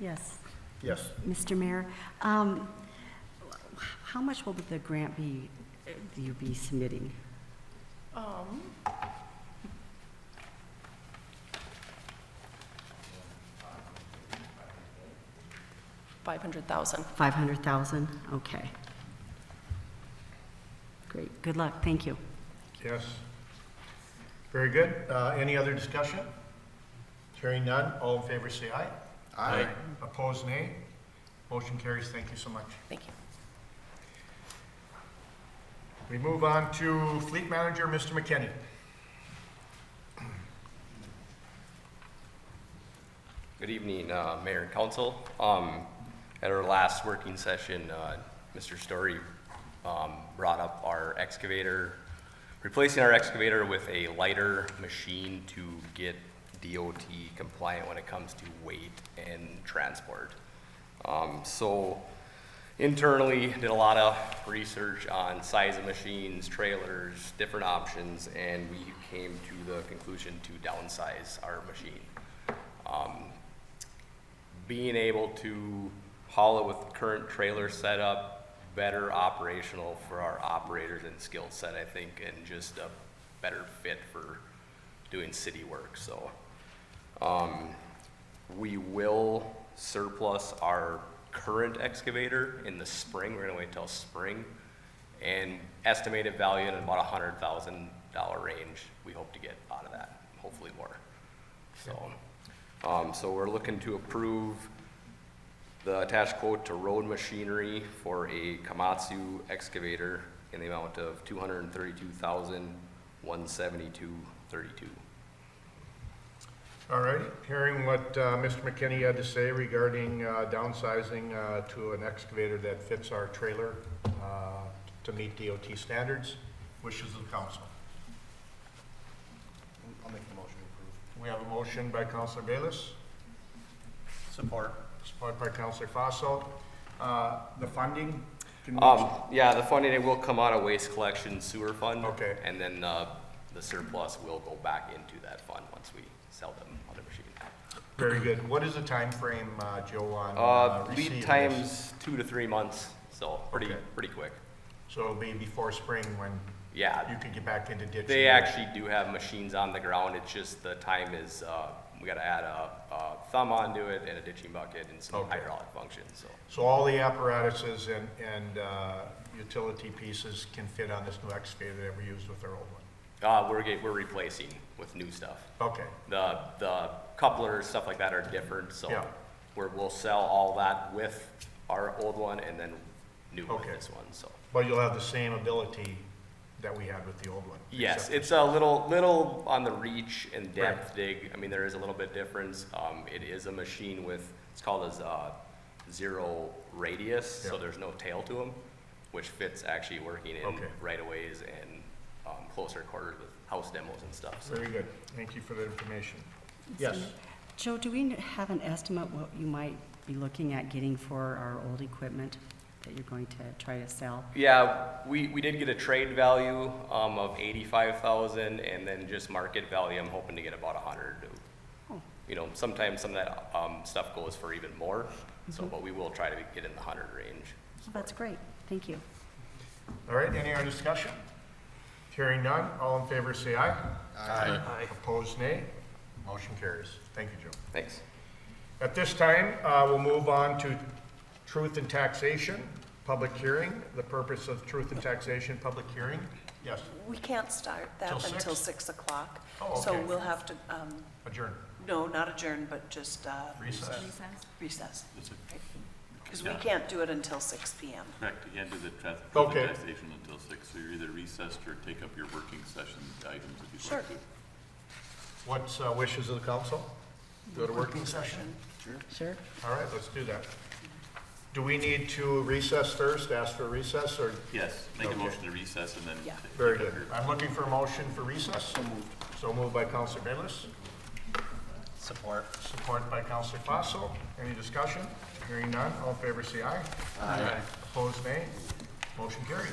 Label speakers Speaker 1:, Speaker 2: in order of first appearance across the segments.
Speaker 1: Yes,
Speaker 2: Yes.
Speaker 1: Mr. Mayor, um, h- how much will the grant be, uh, you be submitting?
Speaker 3: Um, five hundred thousand.
Speaker 1: 500,000? Okay. Great, good luck, thank you.
Speaker 2: Yes. Very good. Uh, Any other discussion? Hearing none, all in favor say aye. Aye. Opposed, nay. Motion carries. Thank you so much.
Speaker 3: Thank you.
Speaker 2: We move on to Fleet Manager, Mr. McKinney.
Speaker 4: Good evening, uh, Mayor and Council. Um, At our last working session, uh, Mr. Story um, brought up our excavator, replacing our excavator with a lighter machine to get DOT compliant when it comes to weight and transport. Um, So internally, did a lot of research on size of machines, trailers, different options, and we came to the conclusion to downsize our machine being able to haul it with the current trailer setup, better operational for our operators and skill set, I think, and just a better fit for doing city work, so. Um, we will surplus our current excavator in the spring, we're gonna wait till spring, and estimated value in about a hundred thousand dollar range, we hope to get out of that, hopefully more. So, um, so we're looking to approve the attached quote to road machinery for a Komatsu excavator in the amount of two hundred and thirty-two thousand, one seventy-two, thirty-two.
Speaker 2: All righty. Hearing what uh, Mr. McKinney had to say regarding uh, downsizing uh, to an excavator that fits our trailer uh, to meet DOT standards. Wishes of the council.
Speaker 5: I'll make the motion to approve.
Speaker 2: We have a motion by Councilor Bayless.
Speaker 5: Support.
Speaker 2: Supported by Counselor Fossil. Uh, The funding? can we-
Speaker 4: Um, yeah, the funding, it will come out of waste collection sewer fund.
Speaker 2: Okay.
Speaker 4: And then, uh, the surplus will go back into that fund once we sell them on the machine.
Speaker 2: Very good. What is the timeframe, uh, Joe, on uh,
Speaker 4: Uh,
Speaker 2: receiving
Speaker 4: lead
Speaker 2: this?
Speaker 4: times, two to three months, so pretty,
Speaker 2: Okay.
Speaker 4: pretty quick.
Speaker 2: So it'll be before spring when
Speaker 4: Yeah,
Speaker 2: you could get back into ditch?
Speaker 4: They actually do have machines on the ground, it's just the time is, uh, we gotta add a, a thumb onto it and a ditching bucket and some
Speaker 2: Okay.
Speaker 4: hydraulic functions, so.
Speaker 2: So all the apparatuses and, and uh, utility pieces can fit on this new excavator that we used with our old one?
Speaker 4: Uh, we're get, we're replacing with new stuff.
Speaker 2: Okay,
Speaker 4: The, the couplers, stuff like that are different, so.
Speaker 2: Yeah.
Speaker 4: We're, we'll sell all that with our old one and then new with
Speaker 2: Okay.
Speaker 4: this one, so.
Speaker 2: but you'll have the same ability that we had with the old one?
Speaker 4: Yes,
Speaker 2: except-
Speaker 4: it's a little, little on the reach and depth dig. I mean, there is a little bit difference. Um, it is a machine with, it's called as a zero radius, so
Speaker 2: Yeah.
Speaker 4: there's no tail to them, which fits actually working in
Speaker 2: Okay.
Speaker 4: right of ways and, um, closer quarters with house demos and stuff, so.
Speaker 2: Very good. Thank you for the information. Yes.
Speaker 1: Joe, do we n- have an estimate what you might be looking at getting for our old equipment that you're going to try to sell?
Speaker 4: Yeah, we, we did get a trade value, um, of eighty-five thousand and then just market value, I'm hoping to get about a hundred.
Speaker 1: Oh.
Speaker 4: You know, sometimes some of that, um, stuff goes for even more, so, but we will try to get in the hundred range.
Speaker 1: Well, Mm-hmm. That's great, thank you.
Speaker 2: All right, any other discussion? Hearing none, all in favor say aye. Aye. Opposed, nay. Motion carries. Thank you, Joe.
Speaker 4: Thanks.
Speaker 2: At this time, uh, we'll move on to truth and taxation, public hearing. The purpose of truth and taxation, public hearing. Yes,
Speaker 6: We can't start that
Speaker 2: Till six?
Speaker 6: until 6 o'clock.
Speaker 2: Oh,
Speaker 6: So
Speaker 2: okay.
Speaker 6: we'll have to, um,
Speaker 2: adjourn.
Speaker 6: no, not adjourn, but just uh,
Speaker 2: Recess.
Speaker 6: recess. Because we can't do it until 6 PM.
Speaker 7: Correct, you can't do the trans-
Speaker 2: Okay.
Speaker 7: presentation until six, so you're either recessed or take up your working session items if you'd
Speaker 6: Sure.
Speaker 7: like to.
Speaker 2: What's uh, wishes of the council? Go to working session?
Speaker 1: Sure.
Speaker 2: All right, let's do that. Do we need to recess first, ask for recess, or?
Speaker 7: Yes, make a
Speaker 2: Okay.
Speaker 7: motion to recess and then.
Speaker 6: Yeah.
Speaker 7: take
Speaker 2: Very
Speaker 7: up
Speaker 2: good.
Speaker 7: your-
Speaker 2: I'm looking for a motion for recess. So moved. So moved by Counselor Bayless,
Speaker 5: Support.
Speaker 2: supported by Counselor Fossil. Any discussion? Hearing none, all in favor say aye.
Speaker 5: Aye.
Speaker 2: Opposed, nay. Motion carries.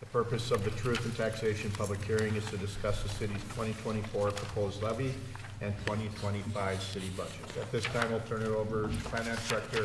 Speaker 2: The purpose of the Truth and Taxation Public Hearing is to discuss the city's 2024 proposed levy and 2025 city budget. At this time, I'll turn it over to Finance Director